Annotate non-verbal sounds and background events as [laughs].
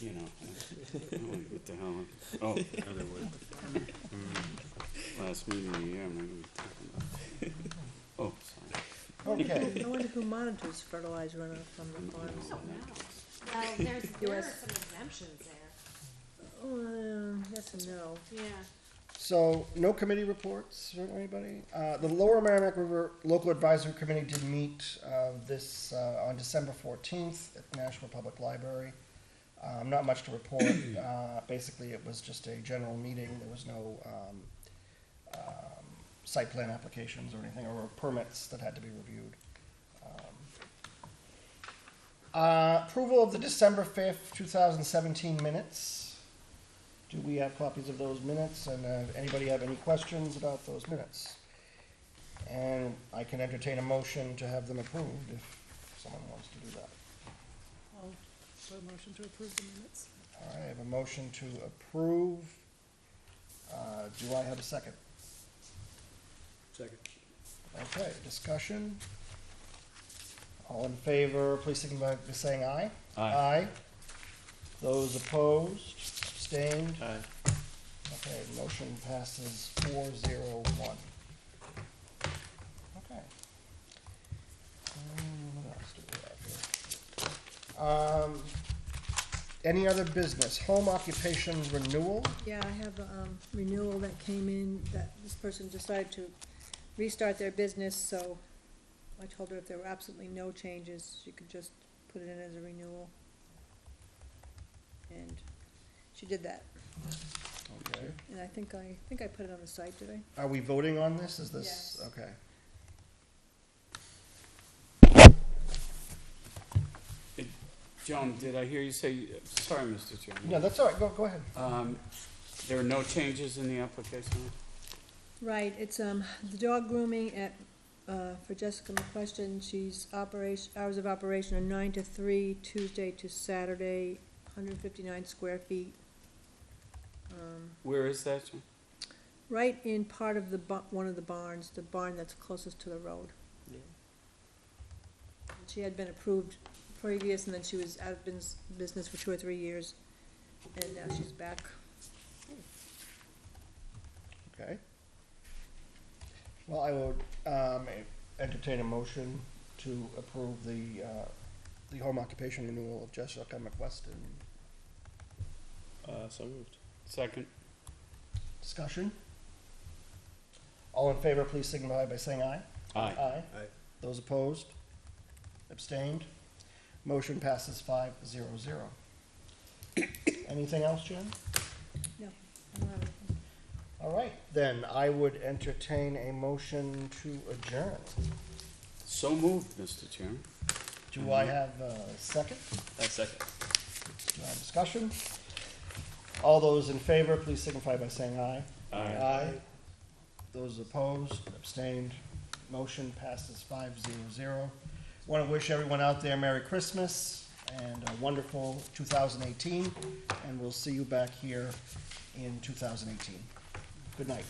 you know. I'm like, What the hell? [laughs] Oh, the other way. Mm-hmm. Last meeting of the year, I'm not gonna be talking about. Oh, sorry. Okay, I wonder who monitors fertilizer runoff from the farms. No, no. Well, Uh, there's, there are US. some exemptions there. Uh, yes and no. Yeah. so no committee reports from anybody? Uh, the Lower Merrimack River Local Advisory Committee did meet, uh, this, uh, on December fourteenth at the National Public Library. Um, not much to report, uh, basically it was just a general meeting, there was no, um, um, site plan applications or anything, or permits that had to be reviewed. Um, Uh, approval of the December fifth, two thousand seventeen minutes. Do we have copies of those minutes, and, uh, anybody have any questions about those minutes? And I can entertain a motion to have them approved if someone wants to do that. So motion to approve the minutes? All right, I have a motion to approve. Uh, do I have a second? Second. Okay, discussion. All in favor, please signify by saying aye. Aye. Those opposed, abstained? Aye. Okay, motion passes four zero one. Okay. Um, what else do we have here? Um, any other business? Home occupation renewal? Yeah, I have a um, renewal that came in, that this person decided to restart their business, so I told her if there were absolutely no changes, she could just put it in as a renewal. And she did that, Okay. and I think I, I think I put it on the site, did I? Are we voting on this? Is this, Yes. okay. Joan, did I hear you say, sorry, Mr. Chairman? No, that's all right, go, go ahead. Um, there are no changes in the application? Right, it's, um, the dog grooming at, uh, for Jessica McQuestion, she's operation, hours of operation are nine to three, Tuesday to Saturday, hundred fifty-nine square feet. Um, Where is that, Joan? right in part of the ba- one of the barns, the barn that's closest to the road. She had been approved previous, and then she was out of business, business for two or three years, and now she's back. Okay. Well, I would um, entertain a motion to approve the, uh, the home occupation renewal of Jessica McWeston. Uh, so moved. Second? Discussion? All in favor, please signify by saying aye. Aye. Aye. Aye. Those opposed? Abstained? Motion passes five zero zero. [coughs] Anything else, Jen? No, I don't have it. All right, then I would entertain a motion to adjourn. So moved, Mr. Chairman. Do I have a second? I second. Uh, Discussion? All those in favor, please signify by saying aye. Aye. Those opposed, abstained, motion passes five zero zero. Want to wish everyone out there Merry Christmas and a wonderful two thousand eighteen, and we'll see you back here in two thousand eighteen. Good night.